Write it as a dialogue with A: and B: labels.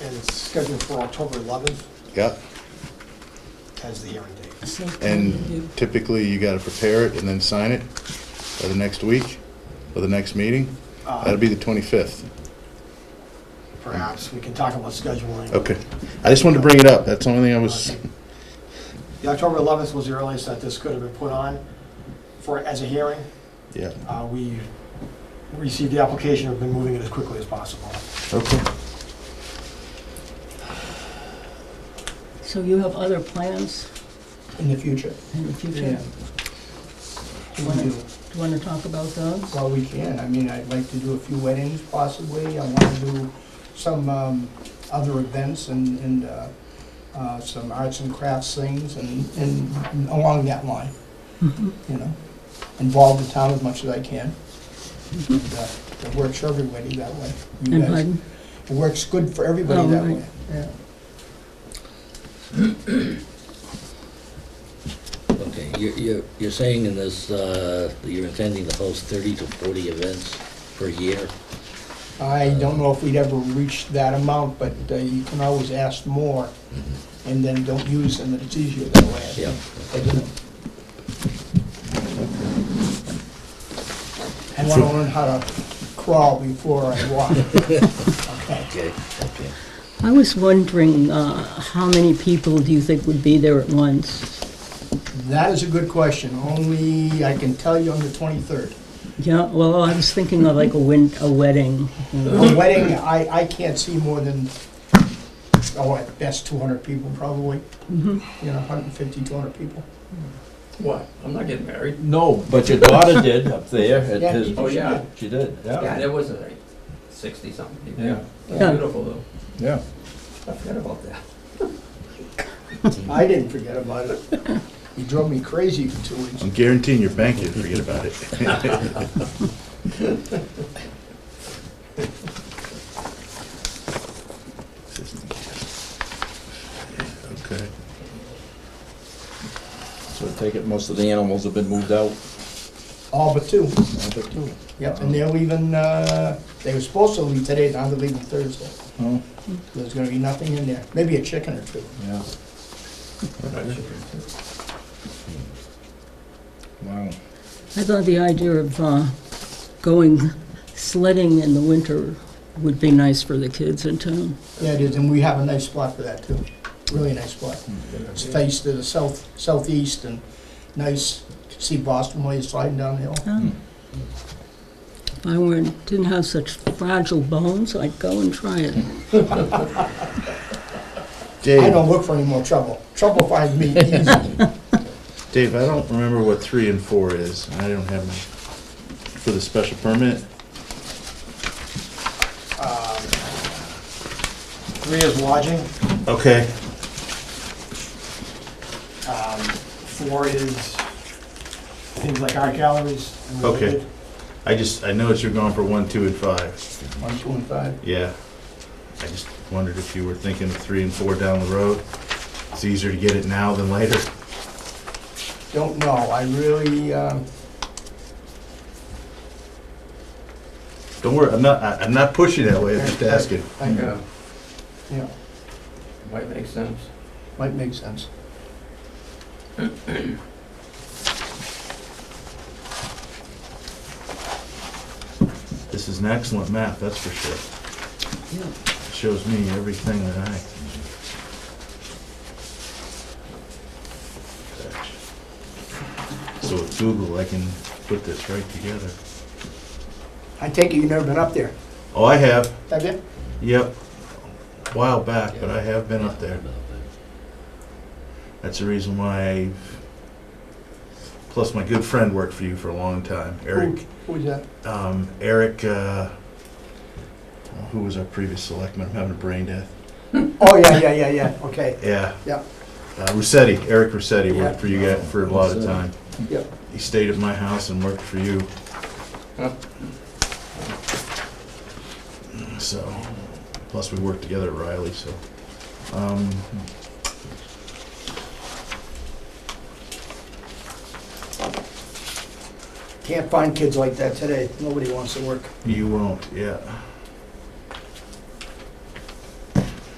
A: is scheduled for October 11th
B: Yeah,
A: as the hearing date.
C: So
B: and typically you gotta prepare it and then sign it by the next week or the next meeting. That'll be the twenty-fifth.
A: Uh, Perhaps we can talk about scheduling.
B: Okay. I just wanted to bring it up. That's the only thing I was,
A: The October 11th was the earliest that this could have been put on for, as a hearing.
B: yeah.
A: Uh, We received the application, have been moving it as quickly as possible.
B: Okay.
C: So you have other plans
D: in the future.
C: in the future?
D: Yeah.
C: Do you
D: We
C: wanna-
D: do.
C: Do you want to talk about those?
D: Well, we can, I mean, I'd like to do a few weddings possibly, I want to do some um, other events and, and uh, uh, some arts and crafts things and, and along that line,
C: Mhm.
D: you know? Involve the town as much as I can. And, uh, It works for everybody that way. You
C: Mm-hmm. And
D: guys-
C: pardon?
D: It works good for everybody
C: Oh,
D: that
C: right.
D: way.
C: Yeah.
E: Okay, you're, you're, you're saying in this, uh, that you're intending to host thirty to forty events per year?
D: I don't know if we'd ever reach that amount, but uh, you can always ask more and then don't use them, and it's easier that way. I
E: Yeah.
D: think. I want to learn how to crawl before I walk. Okay.
E: Okay, okay.
C: I was wondering, uh, how many people do you think would be there at once?
D: That is a good question, only I can tell you on the 23rd.
C: Yeah, well, I was thinking of like a win, a wedding. you know.
D: A wedding, I, I can't see more than, oh, at best 200 people probably, you know, 150, 200 people.
F: What? I'm not getting married.
G: No, but your daughter did up there
D: Yeah.
G: at his.
F: Oh, yeah.
G: She did,
F: Yeah,
G: yeah.
F: there was like sixty something people.
G: Yeah.
F: That's
C: Yeah.
F: Beautiful though.
G: Yeah.
F: I forgot about that.
D: I didn't forget about it. You drove me crazy for two weeks.
B: I'm guaranteeing your bank didn't forget about it. Okay.
G: So I take it most of the animals have been moved out.
D: All but two.
G: Oh,
D: Yep, and they're leaving, uh, they were supposed to leave today, now they're leaving Thursday. There's gonna be nothing in there, maybe a chicken or two.
G: yeah. Wow.
C: I thought the idea of, uh, going sledding in the winter would be nice for the kids in town.
D: Yeah, it is, and we have a nice spot for that too, really nice spot. It's faced to the south, southeast and nice, can see Boston while you're sliding down the hill.
C: Huh? If I weren't, didn't have such fragile bones, I'd go and try it.
D: I
B: Dave,
D: don't look for any more trouble, trouble finds me easy.
B: Dave, I don't remember what three and four is. I don't have my, for the special permit.
A: Three is lodging,
B: Okay.
A: um, four is things like art galleries. and
B: Okay.
A: related.
B: I just, I noticed you're going for one, two, and five.
D: One, two, and five.
B: Yeah. I just wondered if you were thinking of three and four down the road. It's easier to get it now than later.
D: Don't know, I really, um,
B: Don't worry, I'm not, I- I'm not pushing that way, I'm just asking.
D: I,
F: Yeah,
D: uh, yeah,
F: might make sense.
D: might make sense.
B: This is an excellent map, that's for sure.
C: Yeah.
B: Shows me everything that I. So with Google, I can put this right together.
D: I take it you've never been up there,
B: Oh, I have,
D: have you?
B: yep, a while back, but I have been up there. That's the reason why, I plus my good friend worked for you for a long time, Eric.
D: Who was that?
B: um, Eric, uh, who was our previous selectman, I'm having a brain death.
D: Oh, yeah, yeah, yeah, yeah, okay,
B: Yeah.
D: Yeah.
B: Uh, Rossetti, Eric Rossetti
D: Yeah.
B: worked for you guys for a lot of
G: Rossetti.
B: time.
D: Yep.
B: He stayed at my house and worked for you.
F: Huh.
B: So, plus we worked together at Riley, so. Um,
D: can't find kids like that today, nobody wants to work.
B: you won't, yeah.